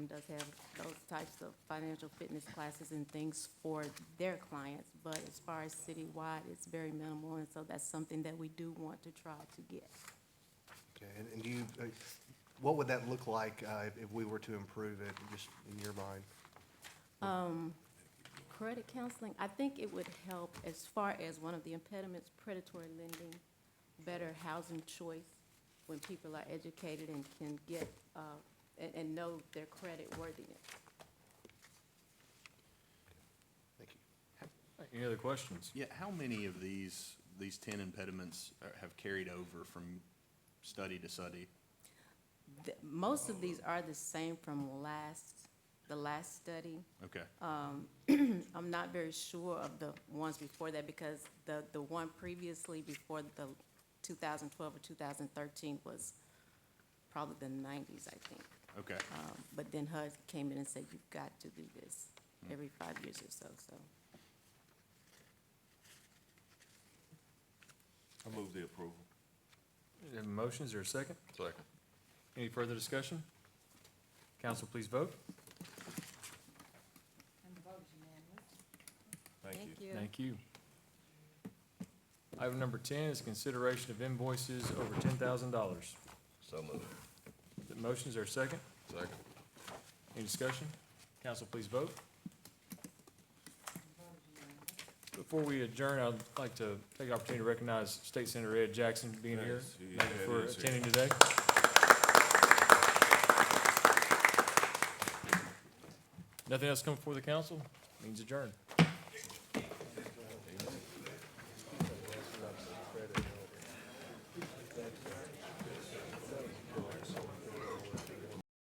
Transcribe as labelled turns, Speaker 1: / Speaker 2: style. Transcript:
Speaker 1: does have those types of financial fitness classes and things for their clients, but as far as citywide, it's very minimal, and so that's something that we do want to try to get.
Speaker 2: Okay, and- and do you, uh, what would that look like uh, if- if we were to improve it, just in your mind?
Speaker 1: Credit counseling, I think it would help as far as one of the impediments, predatory lending, better housing choice, when people are educated and can get, uh, and, and know their credit worthiness.
Speaker 2: Thank you.
Speaker 3: Any other questions?
Speaker 4: Yeah, how many of these, these ten impediments are- have carried over from study to study?
Speaker 1: The- Most of these are the same from last, the last study.
Speaker 4: Okay,
Speaker 1: I'm not very sure of the ones before that because the, the one previously before the 2012 or 2013 was probably the 90s, I think.
Speaker 4: okay,
Speaker 1: Um, But then HUD came in and said, you've got to do this
Speaker 5: Hmm.
Speaker 1: every five years or so, so.
Speaker 5: I move the approval.
Speaker 3: Is there motions or a second?
Speaker 5: Second.
Speaker 3: Any further discussion? Council, please vote.
Speaker 6: And the vote is unanimous.
Speaker 5: Thank you.
Speaker 3: Thank you. Item number ten is consideration of invoices over ten thousand dollars.
Speaker 5: So moved.
Speaker 3: The motions are second.
Speaker 5: Second.
Speaker 3: Any discussion? Council, please vote. Before we adjourn, I'd like to take the opportunity to recognize State Senator Ed Jackson being here.
Speaker 5: Yes, he-
Speaker 3: Thank you
Speaker 5: Ed
Speaker 3: for
Speaker 5: is here.
Speaker 3: attending today. Nothing else coming before the council? Means adjourn.